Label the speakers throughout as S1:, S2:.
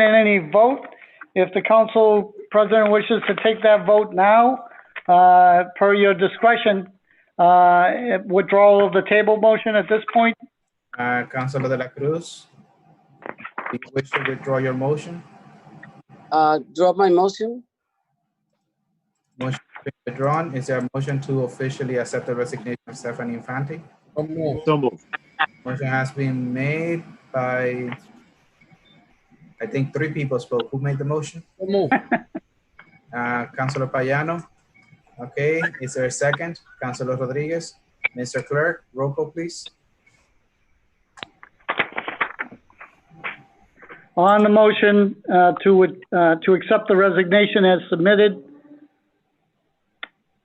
S1: in any vote. If the council president wishes to take that vote now, uh, per your discretion, uh, withdrawal of the table motion at this point,
S2: Uh, Councilor De La Cruz, do you wish to withdraw your motion?
S3: Uh, drop my motion.
S2: Motion has been withdrawn. Is there a motion to officially accept the resignation of Stephanie Infante?
S4: So moved.
S2: Motion has been made by, I think three people spoke. Who made the motion? Uh, Councilor Payano. Okay, is there a second? Councilor Rodriguez. Mr. Clerk, roll call, please.
S1: on the motion, uh, to, uh, to accept the resignation as submitted.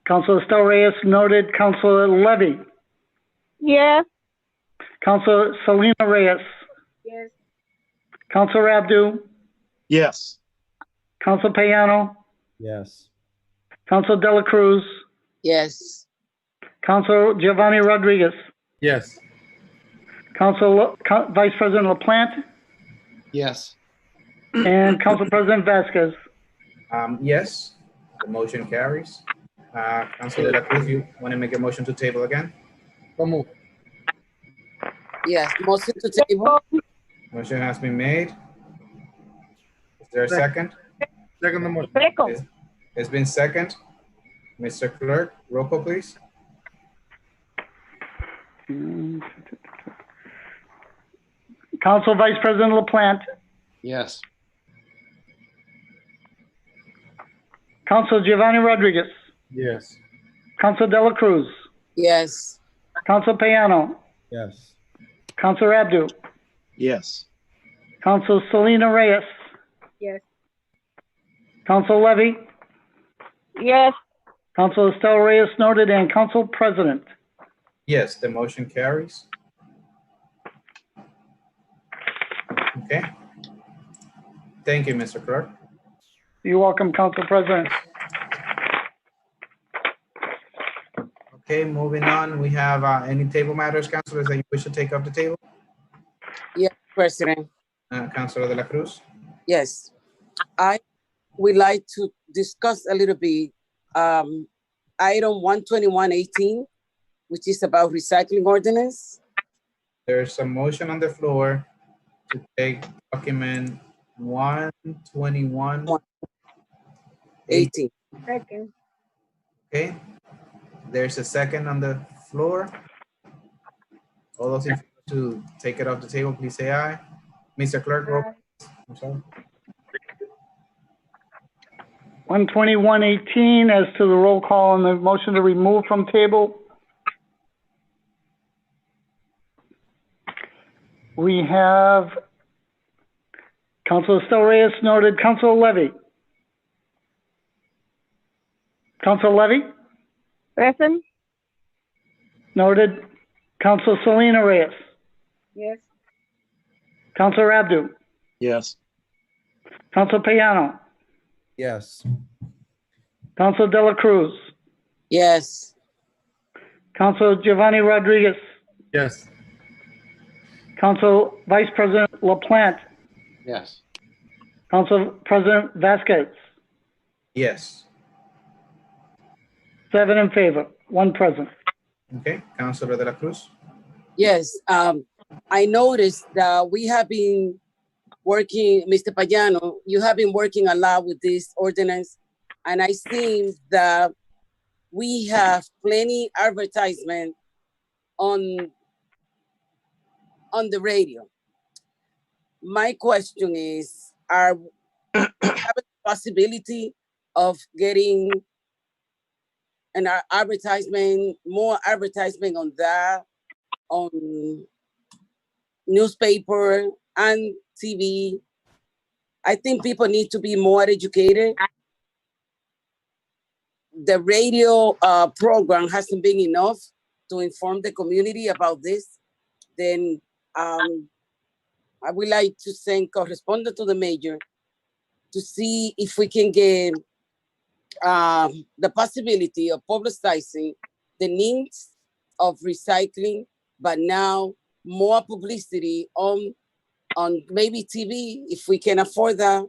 S1: Councilor Estel Reyes noted, Councilor Levy,
S5: Yes.
S1: Councilor Selena Reyes,
S5: Yes.
S1: Councilor Abdu,
S4: Yes.
S1: Council Payano,
S6: Yes.
S1: Council Dela Cruz,
S3: Yes.
S1: Council Giovanni Rodriguez,
S6: Yes.
S1: Council, Co- Vice President LaPlante,
S6: Yes.
S1: and Council President Vasquez.
S2: Um, yes, the motion carries. Uh, Councilor De La Cruz, you want to make a motion to table again?
S3: Yes. Motion to table.
S2: Motion has been made. Is there a second?
S6: Second the motion.
S5: Greco.
S2: It's been second. Mr. Clerk, roll call, please.
S1: Council Vice President LaPlante,
S6: Yes.
S1: Council Giovanni Rodriguez,
S6: Yes.
S1: Council Dela Cruz,
S3: Yes.
S1: Council Payano,
S6: Yes.
S1: Council Abdu,
S4: Yes.
S1: Council Selena Reyes,
S5: Yes.
S1: Council Levy,
S5: Yes.
S1: Council Estel Reyes noted, and Council President.
S2: Yes, the motion carries. Okay. Thank you, Mr. Clerk.
S1: You're welcome, Council President.
S2: Okay, moving on, we have uh, any table matters, councilors, that you wish to take off the table?
S3: President.
S2: Uh, Councilor De La Cruz?
S3: Yes. I would like to discuss a little bit, um, item one twenty-one eighteen, which is about recycling ordinance.
S2: There's a motion on the floor to take document 121
S3: Eighteen.
S5: Second.
S2: Okay, there's a second on the floor. All those in favor to take it off the table, please say aye. Mr. Clerk, roll. I'm sorry.
S1: 12118, as to the roll call on the motion to remove from table. We have Council Estel Reyes noted, Council Levy. Council Levy
S5: Present.
S1: noted, Council Selena Reyes,
S5: Yes.
S1: Council Abdu,
S4: Yes.
S1: Council Payano,
S6: Yes.
S1: Council Dela Cruz,
S3: Yes.
S1: Council Giovanni Rodriguez,
S6: Yes.
S1: Council Vice President LaPlante,
S6: Yes.
S1: Council President Vasquez,
S2: Yes,
S1: seven in favor, one present.
S2: okay, Councilor De La Cruz,
S3: Yes, um, I noticed that we have been working, Mr. Payano, you have been working a lot with this ordinance. And I think that we have plenty advertisement on, on the radio. My question is, are, have a possibility of getting an a- advertisement, more advertisement on that on newspaper and TV. I think people need to be more educated. The radio uh, program hasn't been enough to inform the community about this. Then um, I would like to send correspondent to the mayor to see if we can get um, the possibility of publicizing the needs of recycling but now more publicity on on maybe TV if we can afford that.